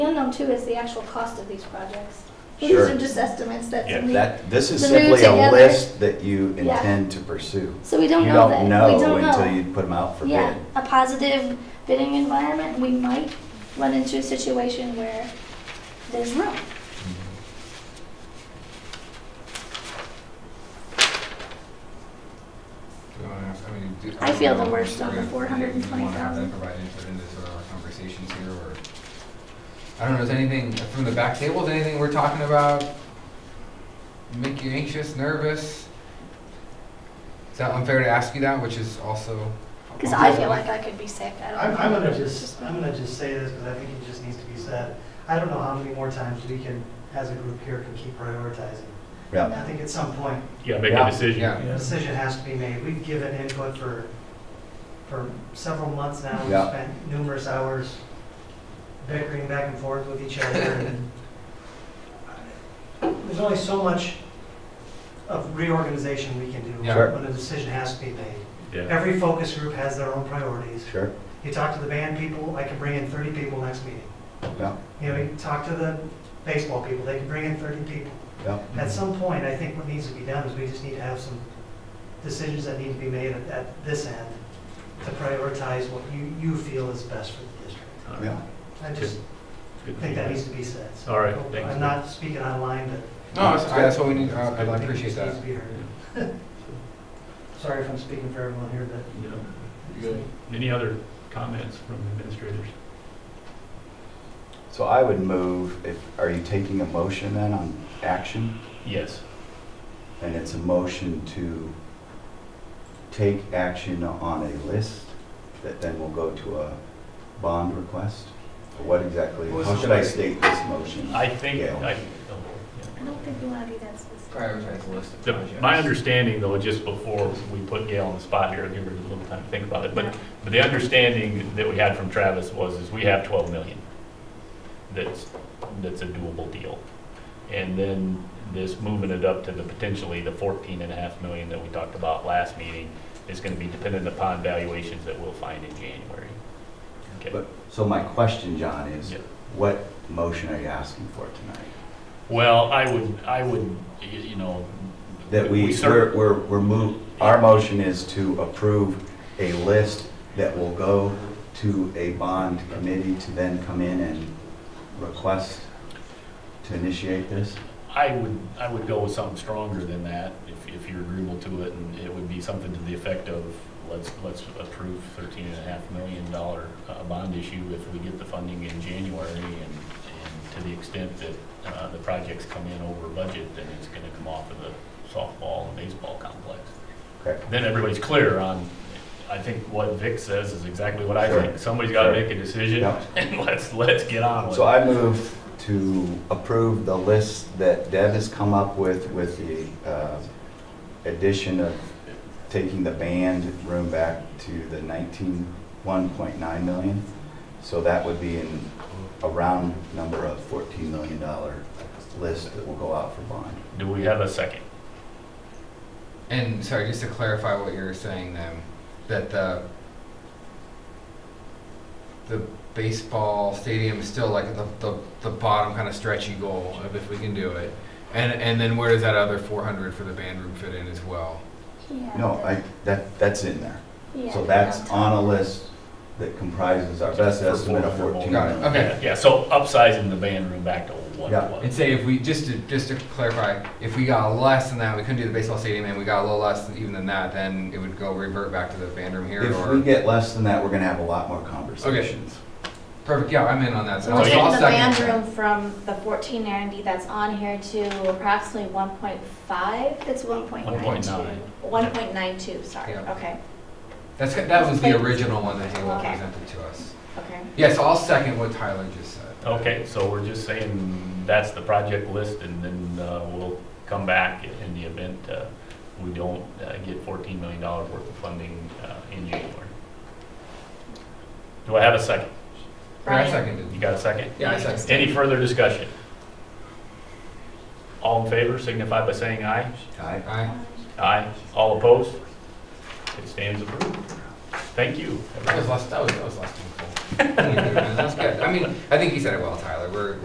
The unknown too is the actual cost of these projects. These Sure. are just estimates that. Yeah, we- That, this is The new simply a together. list that you Yeah. intend to pursue. So we don't You know that. don't We know don't know. until you put them out for Yeah, bid. a positive bidding environment, we might run into a situation where there's room. We wanna have- I mean, do- I feel the don't know worst if on the we're gonna- 420,000. do you wanna have them provide input into sort of our conversations here, or, I don't know, is anything, from the back table, is anything we're talking about make you anxious, nervous? Is that unfair to ask you that, which is also? Because I feel like I could be sick. I I'm, don't I'm know. gonna just, I'm gonna just say this, because I think it just needs to be said. I don't know how many more times we can, as a group here, can keep prioritizing. Yeah. I think at some point, Yeah, make Yeah. a decision. Yeah. a decision has to be made. We've given input for, for several months now. We've Yeah. spent numerous hours bickering back and forth with each other. and There's only so much of reorganization we can do Yeah. Sure. when a decision has to be made. Yeah. Every focus group has their own priorities. Sure, You talk to the band people, I can bring in 30 people next meeting. yeah, You know, you talk to the baseball people, they can bring in 30 people. yeah, At Mm-hmm. some point, I think what needs to be done is we just need to have some decisions that need to be made at, at this end to prioritize what you, you feel is best for the district. All right. yeah. I just Uh, Good. think that needs to be said. So All right, I hope- thanks. I'm not speaking online, but No, that's, I- that's what we need, I I I think it appreciate just that. needs to be heard. Sorry if I'm speaking for everyone here, but Yeah. Any other comments from administrators? So I would move, if, are you taking a motion then on action? Yes. And it's a motion to take action on a list that then will go to a bond request? What exactly, What was how the should I list? state this motion? I think, Yeah. I, oh, I don't think we want to be that specific. Prioritize the list of the- my understanding though, just before we put Gail on the spot here, give her a little time to think about it, but, but the understanding that we had from Travis was, is we have twelve million. That's, that's a doable deal. And then this moving it up to the potentially the fourteen and a half million that we talked about last meeting is gonna be dependent upon valuations that we'll find in January. Okay. But, so my question, John, is Yeah. what motion are you asking for tonight? Well, I would, I would, y- you know. That we, cer- we're, we're, we're move, our motion is to approve a list that will go to a bond committee to then come in and request to initiate this? I would, I would go with something stronger than that, if, if you're agreeable to it, and it would be something to the effect of, let's, let's approve thirteen and a half million dollar, uh, bond issue if we get the funding in January, and, and to the extent that, uh, the projects come in over budget, then it's gonna come off of the softball and baseball complex. Okay. Then everybody's clear on, I think what Vic says is exactly what I Sure. think, somebody's gotta Sure. make a decision, Yep. and let's, let's get on with it. So I move to approve the list that Deb has come up with, with the uh, addition of taking the band room back to the 19, 1.9 million. So that would be in a round number of $14 million list that will go out for bond. Do we have a second? And sorry, just to clarify what you were saying then, that the the baseball stadium is still like the, the, the bottom kind of stretchy goal of if we can do it. And and then where does that other four hundred for the band room fit in as well? Yeah, No, but- I, that, that's in there. yeah, So but that's not top. on a list that comprises our best For estimate of 400 14 Got it. million. Okay. Yeah, Yeah, so upsizing the band room back to what Yeah. it And was. say if we just to just to clarify, if we got less than that, we couldn't do the baseball stadium and we got a little less than, even than that, then it would go revert back to the band room here If or we get less than that, we're going to have a lot more conversations. perfect, yeah, I'm in on that. So So we're Also, taking I'll the second band that. room from the fourteen ninety that's on here to approximately one point five, It's one point nine. 1.9. one point nine two, sorry, Yeah. okay, That's that was the Thanks. original one that Halo Okay. presented to us. okay. Yes, I'll second what Tyler just said. Okay, so we're just saying that's the project list and then uh, we'll come back in the event uh, we don't uh, get $14 million worth of funding uh, in January. Do I have a second? Yeah, I Brian? You seconded. got a second? Yeah, I seconded. Any further discussion? All in favor signify by saying aye. Aye. Aye. Aye. All opposed? It stands approved. Thank you. That was last, that was, that was last time. That's good. I mean, I think you said it well, Tyler. We're,